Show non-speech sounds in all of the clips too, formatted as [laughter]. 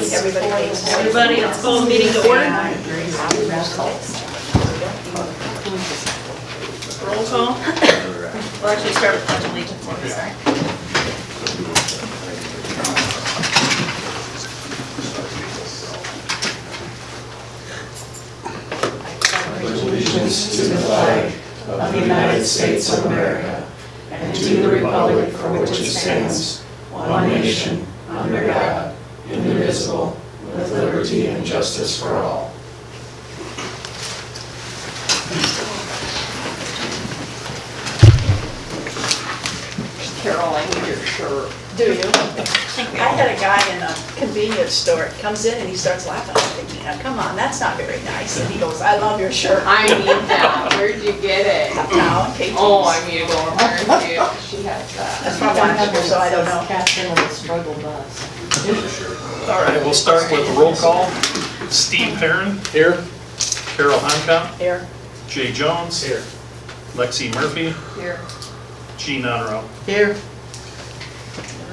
Everybody, let's call the meeting to order. Roll call. We'll actually start with pledge allegiance. let me start. Carol, I need your shirt. Do you? I had a guy in a Convenience store comes in and he starts laughing. I'm thinking, now, come on, that's not very nice. And he goes, I love your shirt. I need that. Where'd you get it? Now, KT's. Oh, I need to go over and see if she has that. That's from Washington, so I don't know. Captain of the struggle bus. All right, we'll start with the roll call. Steve Perrin. Here. Carol Hancock. Here, Jay Jones. Here. Lexi Murphy. Here. Gene Honorable. Here.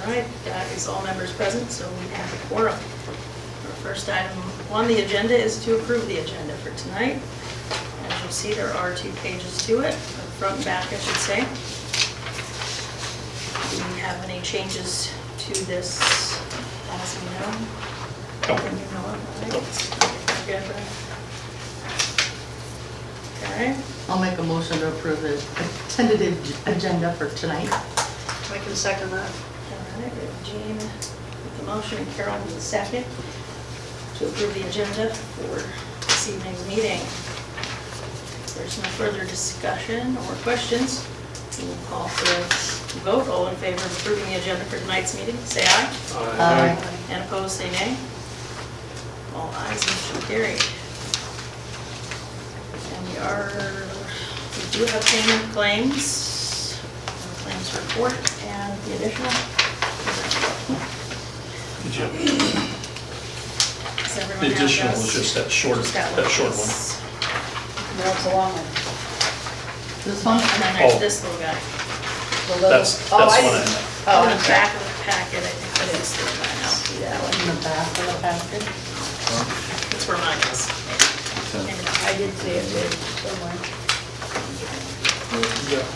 All right, that is all members present, so we have a quorum. Our first item on the agenda is to approve the agenda for tonight. As you'll see, there are two pages to it, front and back, I should say. Do we have any changes to this, as we know? When you know it, right? Good, right? Okay, I'll make a motion to approve the tentative agenda for tonight. I can second that. all right, we have Jean with the motion, and Carol with the second, to approve the agenda for this evening's meeting. If There's no further discussion or questions. We'll call for a vote. All in favor of approving the agenda for tonight's meeting, say aye. Uh, Aye. And opposed, say nay. All ayes, motion carried. And we are, we do have payment of claims, claims report, and the additional. Did you- Does everyone The have additional was those? just that short, Just that short one. yes. No, it's a long one. This one? And then there's Oh. this little guy. The little- That's, that's Oh, one I I didn't- know. Oh, In I'm the sorry. back of the packet, I think this is the one. I'll see that one. In the back of the basket. It's where mine is. Maybe not. I did see it too, somewhere.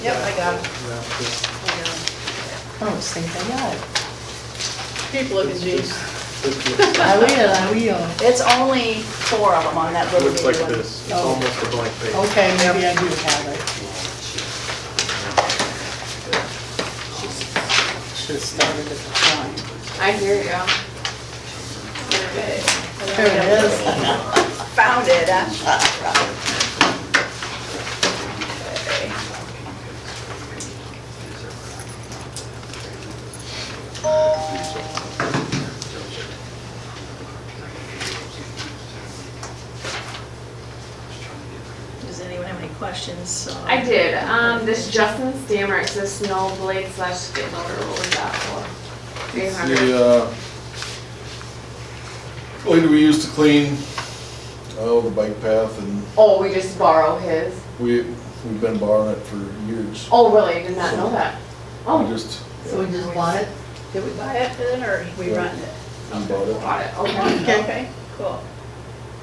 Yep, I got it. I don't think Oh, I got it. People look at these. I will, I will. It's only four of them on that little Looks like bitty one. this, it's almost a blank page. Okay, maybe I do have it. Should've started at the front. I hear ya. There it is. Found it, huh? Does anyone have any questions? Uh, I did. Um, this Justin Stammer, it says snow blade slash skid loader. What was that for? Three hundred. The, uh, blade we use to clean, oh, the bike path and Oh, we just borrow his. we, we've been borrowing it for years. Oh, really? I did not know that. We Oh, just, So we just bought it? Did we buy it then, or we run it? we bought it. got it. Okay. [laughs] Okay, cool.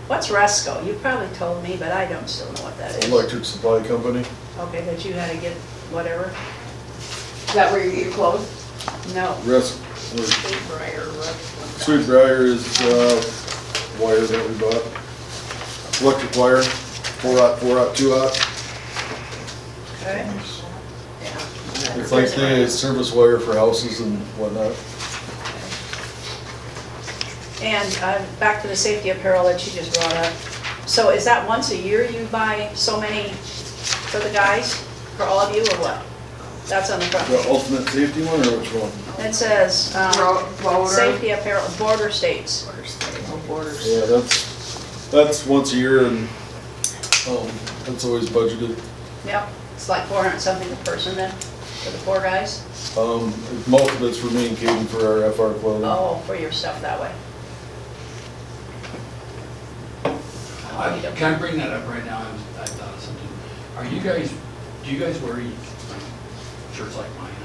What's Resco? You probably told me, but I don't still know what that is. Electric Supply Company. Okay, that you had to get whatever? Is that where you get your clothes? No. Rest, or Briar, Rook. Sweet Briar is, uh, wire that we bought. Electric wire, four out, four out, two out. Okay. It's like the service wire for houses and whatnot. And uh, back to the safety apparel that you just brought up. So is that once a year you buy so many for the guys, for all of you, or what? That's on the The front. ultimate safety one or which one? It says, um, Ro- Roller. safety apparel, border states. No borders. Yeah, that's, that's once a year and, um, that's always budgeted. Yep, it's like 400 something a person then, for the poor guys? Um, most of it's for me and Kaden for our FR clothing. Oh, for your stuff that way. I- Can I bring that up right now? I'm- I thought of something. Are you guys, do you guys wear shirts like mine?